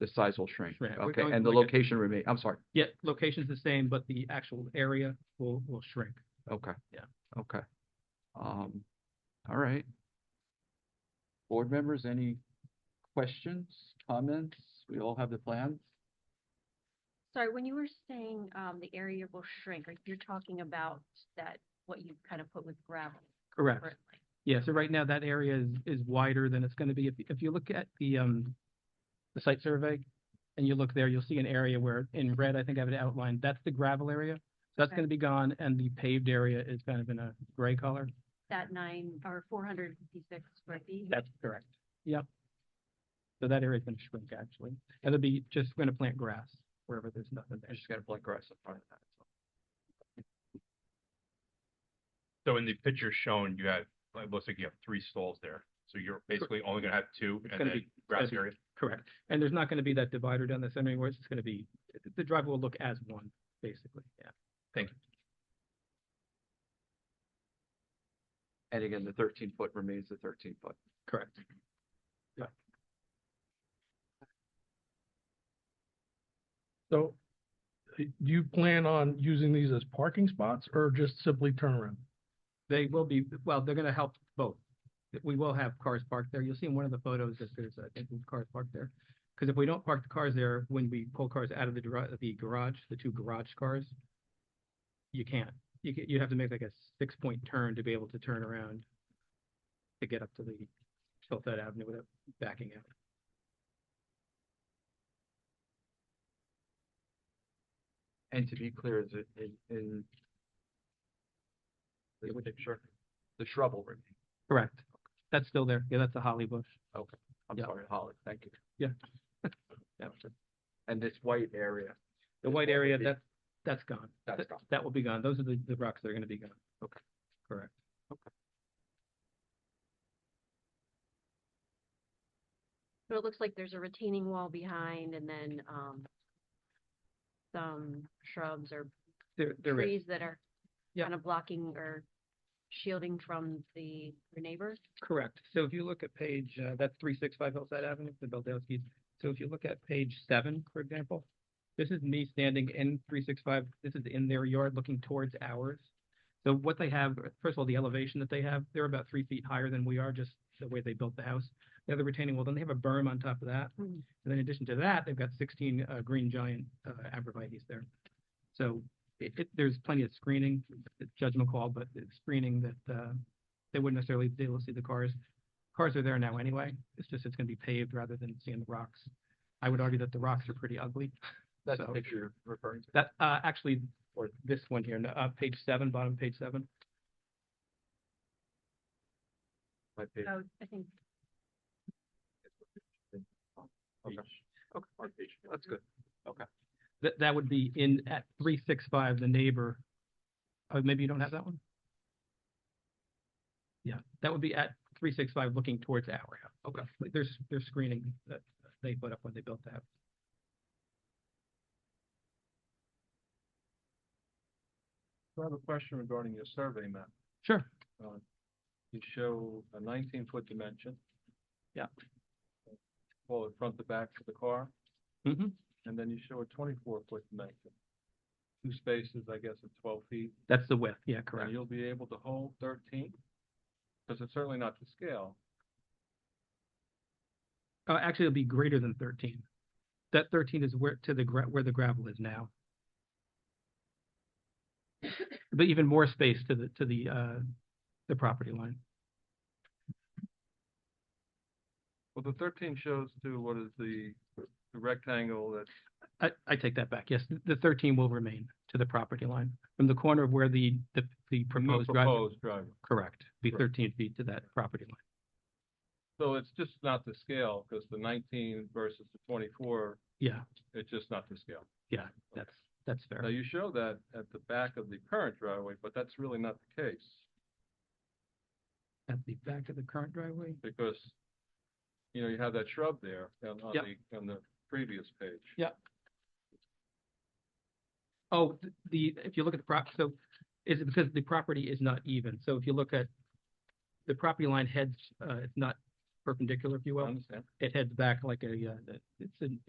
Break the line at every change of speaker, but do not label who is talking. the size will shrink.
Right, we're
Okay,
going
and the
like a-
location remain, I'm sorry,
Yeah, location's the same, but the actual area will, will shrink.
okay.
Yeah.
Okay. Um, all right. Board members, any questions, comments? We all have the plan?
Sorry, when you were saying, um, the area will shrink, are you're talking about that, what you kind of put with gravel
Correct.
currently?
Yeah, so right now that area is, is wider than it's gonna be. If, if you look at the, um, the site survey and you look there, you'll see an area where in red, I think I have it outlined, that's the gravel area. That's
Okay.
gonna be gone and the paved area is kind of in a gray color.
That nine or four hundred fifty-six square feet?
That's correct. Yep. So that area's gonna shrink actually. And It'll be just, we're gonna plant grass wherever there's nothing
I
there.
just got to black grass in front of that.
So in the picture shown, you have, like, it looks like you have three stalls there. So you're basically only gonna have two
It's
and
gonna
then
be-
grass
be-
area.
Correct. And there's not gonna be that divider down the center anymore. It's just gonna be, the driveway will look as one, basically, yeah.
And again, the thirteen foot remains the thirteen foot.
Correct.
So uh, do you plan on using these as parking spots or just simply turnaround?
They will be, well, they're gonna help both. We will have cars parked there. You'll see in one of the photos that there's, I think, cars parked there. Because if we don't park the cars there, when we pull cars out of the garage, the garage, the two garage cars, you can't. You ca you have to make like a six-point turn to be able to turn around to get up to the Hillside Avenue without backing out.
And to be clear, is it in, in this picture, the shrub will remain.
Correct. That's still there. Yeah, that's a holly bush.
I'm
Yeah.
sorry, Holly, thank you.
Yeah.
Yeah. And this white area.
The
is what
white
would
area,
be-
that, that's gone.
That's
That-
gone.
That will be gone. Those are the, the rocks that are gonna be gone.
Okay.
Correct.
So it looks like there's a retaining wall behind and then, um, some shrubs or
There, there is.
trees that are
Yeah.
kind of blocking or shielding from the your neighbors?
Correct. So if you look at page, uh, that's three six five Hillside Avenue, the Beldowski's. So if you look at page seven, for example, this is me standing in three six five, this is in their yard looking towards ours. So what they have, first of all, the elevation that they have, they're about three feet higher than we are, just the way they built the house. They have the retaining wall, then they have a berm on top of that.
Mm.
And then in addition to that, they've got sixteen, uh, green giant, uh, arborvitae's there. So it, it, there's plenty of screening, it's judgment call, but it's screening that, uh, they wouldn't necessarily be able to see the cars. Cars are there now anyway. It's just it's gonna be paved rather than seeing the rocks. I would argue that the rocks are pretty ugly.
That's the
So-
picture you're referring to.
That uh actually, or this one here, no, uh page seven, bottom of page seven.
My page.
Oh, I think
Okay. Okay, my page. That's good.
That that would be in at three six five, the neighbor. Oh, maybe you don't have that one? Yeah, that would be at three six five looking towards our house. Okay. Like there's there's screening that they put up when they built the house.
I have a question regarding your survey map.
Sure.
You show a nineteen foot dimension.
Yeah.
Call it front to back for the car,
hmm
and then you show a twenty-four foot dimension. Two spaces, I guess, of twelve feet.
That's the width. Yeah,
and
correct.
You'll be able to hold thirteen, because it's certainly not to scale.
Oh, actually, it'll be greater than thirteen. That thirteen is where to the gra- where the gravel is now. But even more space to the to the uh the property line.
Well, the thirteen shows to what is the the rectangle that
I I take that back. Yes, th- the thirteen will remain to the property line from the corner of where the the the
Oh,
proposed driveway.
proposed driveway.
Correct, be
Correct.
thirteen feet to that property line.
So it's just not to scale, because the nineteen versus the twenty-four,
Yeah,
it's just not to scale.
yeah, that's that's
Now,
fair.
you show that at the back of the current driveway, but that's really not the case,
At the back of the current driveway.
because, you know, you have that shrub there on, on
Yep.
the, on the previous page.
Yep. Oh, th- the, if you look at the prop, so is it because the property is not even? So if you look at the property line heads, uh, it's not perpendicular, if you
I
will.
understand.
It heads back like a, uh, it's an,